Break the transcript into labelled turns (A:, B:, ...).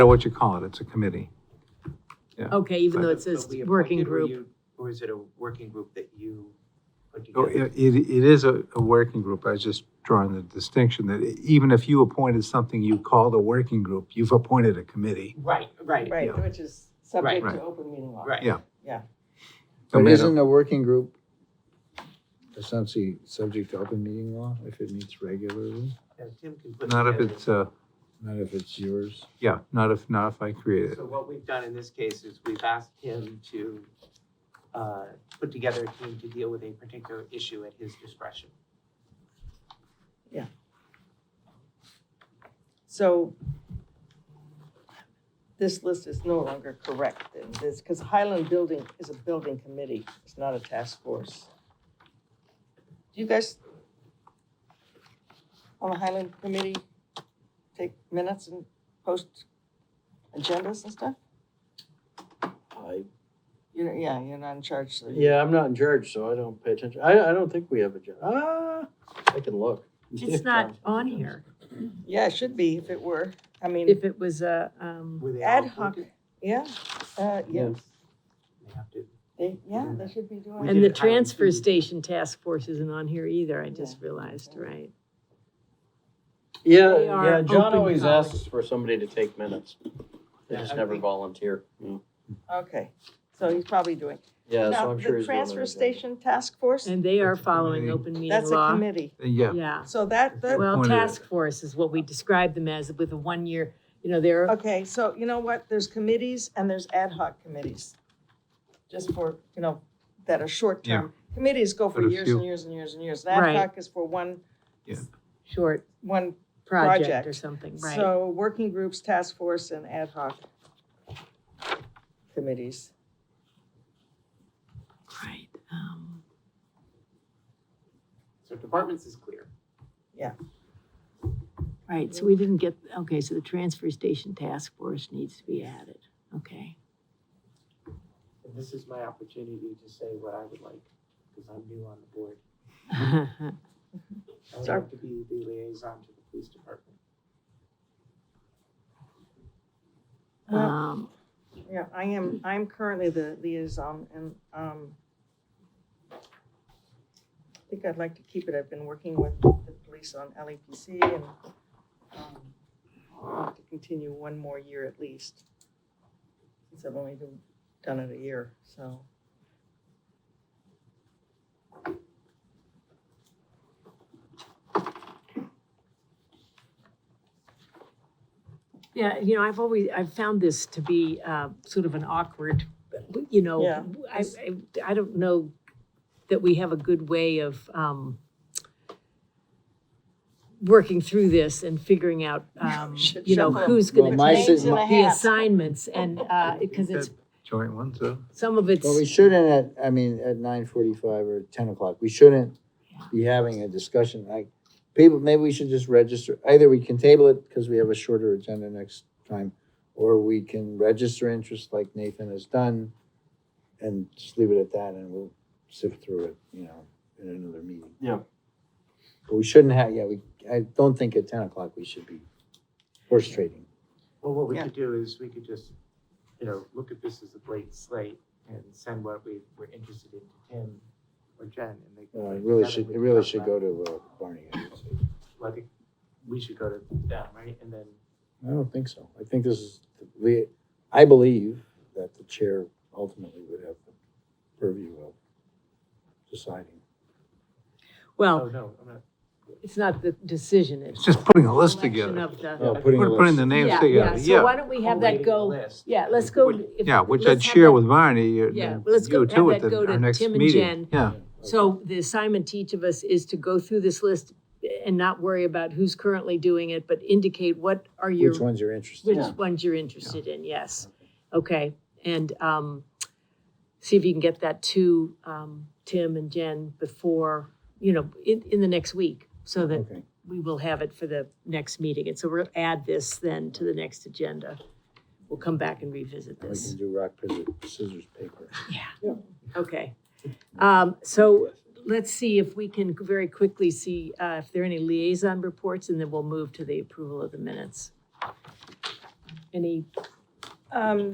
A: matter what you call it, it's a committee.
B: Okay, even though it says
C: Are we
B: working
C: appointed or
B: group.
C: you- Or is it a working group that you put
A: So
C: together?
A: Oh, It, it it is a, a working group, I was just drawing the distinction that even if you appointed something you called a working group, you've appointed a committee.
C: Right, right,
D: Right,
A: Yeah.
D: which is subject
A: Right.
D: to open meeting law.
C: right.
A: Yeah. No
E: But
A: matter-
E: isn't a working group essentially subject to open meeting law if it meets regularly?
C: Uh, Tim can put
A: Not if
C: together-
A: it's, uh,
E: Not if it's yours?
A: yeah, not if, not if I create it.
C: So what we've done in this case is we've asked him to uh, put together a team to deal with a particular issue at his discretion.
D: So this list is no longer correct in this, because Highland Building is a building committee, it's not a task force. Do you guys on the Highland Committee take minutes and post agendas and stuff?
F: I,
D: You're, yeah, you're not in charge, so. you-
F: yeah, I'm not in charge, so I don't pay attention. I, I don't think we have a job. Ah, I can look.
B: It's not on here.
D: Yeah, it should be if it were, I mean,
B: If it was a, um,
C: Were they all
D: ad hoc,
C: appointed?
D: yeah, uh, yes,
C: They have to-
D: they, yeah, they should be doing.
C: We
B: and
C: did
B: the
C: it highly
B: transfer
C: soon.
B: station task force isn't on here either, I just realized, right?
F: Yeah,
B: They are
F: yeah, John
B: open
F: always
B: college.
F: asks for somebody to take minutes. They
C: Yeah,
F: just
C: I
F: never
C: think-
F: volunteer.
D: Okay, so he's probably doing.
F: Yeah, so
D: Now,
F: I'm sure
D: the
F: he's doing
D: transfer
F: their job.
D: station task force,
B: And they are
A: That's a
B: following
A: committee.
B: open meeting
D: that's a
B: law.
D: committee.
A: Uh, Yeah,
B: Yeah,
D: So that, that,
B: well,
A: Appointed.
B: task force is what we describe them as with a one-year, you know, they're,
D: okay, so you know what, there's committees and there's ad hoc committees. Just for, you know, that are short term. Committees go for
A: But a
D: years
A: few.
D: and years and years and years. Ad
B: Right.
D: hoc is for one,
B: short
D: one,
B: project
D: Project.
B: or something, right?
D: so working groups, task force and ad hoc committees.
B: Right. um,
C: So departments is clear.
B: Right, so we didn't get, okay, so the transfer station task force needs to be added, okay.
C: And this is my opportunity to say what I would like, because I'm new on the board. I would
D: Sorry.
C: like to be the liaison to the police department.
D: Well,
B: Um,
D: Yeah, I am, I'm currently the liaison and, um, I think I'd like to keep it. I've been working with the police on LEPC and, um, I'd like to continue one more year at least. Since I've only been, done it a year, so.
B: Yeah, you know, I've always, I've found this to be uh, sort of an awkward, you know,
D: Yeah.
B: I, I- I don't know that we have a good way of um, working through this and figuring out, um,
D: Should
B: you know,
D: shuffle 'em.
B: who's
E: Well,
B: going
E: my
B: to
E: sit-
B: take
D: Names in a
B: the
D: hat.
B: assignments and, because it's,
A: joint one, so.
B: some of it's,
E: But we shouldn't at, I mean, at nine forty-five or ten o'clock, we shouldn't be having a discussion like, people, maybe we should just register, either we can table it because we have a shorter agenda next time, or we can register interest like Nathan has done and just leave it at that and we'll sift through it, you know, in another meeting.
F: Yeah.
E: But we shouldn't have, yeah, we, I don't think at ten o'clock we should be horse trading.
C: Well, what we
D: Yeah.
C: could do is we could just, you know, look at this as a blank slate and send what we were interested in to Tim or Jen and they. can
E: Uh,
C: put
E: it really
C: together,
E: should,
C: we
E: it
C: can
E: really
C: talk
E: should
C: about
E: go to uh, Barney, I would say.
C: Well, I think we should go to them, right? And then,
E: I don't think so. I think this is, the lea- I believe that the chair ultimately would have the purview of deciding.
C: oh,
B: well,
C: no, I'm not.
B: it's not the decision, it's
A: It's just putting a list
B: selection
A: together.
B: of the-
E: Oh,
A: Putting,
E: a
A: putting
E: list.
A: the names
B: Yeah,
A: together,
B: So why
A: yeah.
B: don't we have that
C: collating a
B: go,
C: list.
B: yeah, let's go.
C: Would-
B: if-
A: Yeah, which
B: let's
A: I'd
B: have
A: share
B: that-
A: with Barney, uh,
B: Yeah,
A: you
B: let's go- have
A: two at
B: that go
A: the-
B: to
A: our next
B: Tim and
A: meeting.
B: Jen.
A: Yeah,
B: So the assignment to each of us is to go through this list and not worry about who's currently doing it, but indicate what are your,
E: Which ones you're interested
B: which
E: in?
B: ones you're interested in, yes. Okay, and um, see if you can get that to um, Tim and Jen before, you know, in, in the next week, so that
E: Okay.
B: we will have it for the next meeting. And so we'll add this then to the next agenda. We'll come back and revisit
E: And we
B: this.
E: can do rock, paper, scissors, paper.
B: Okay. Um, so let's see if we can very quickly see, uh, if there are any liaison reports, and then we'll move to the approval of the minutes. Any
D: Um,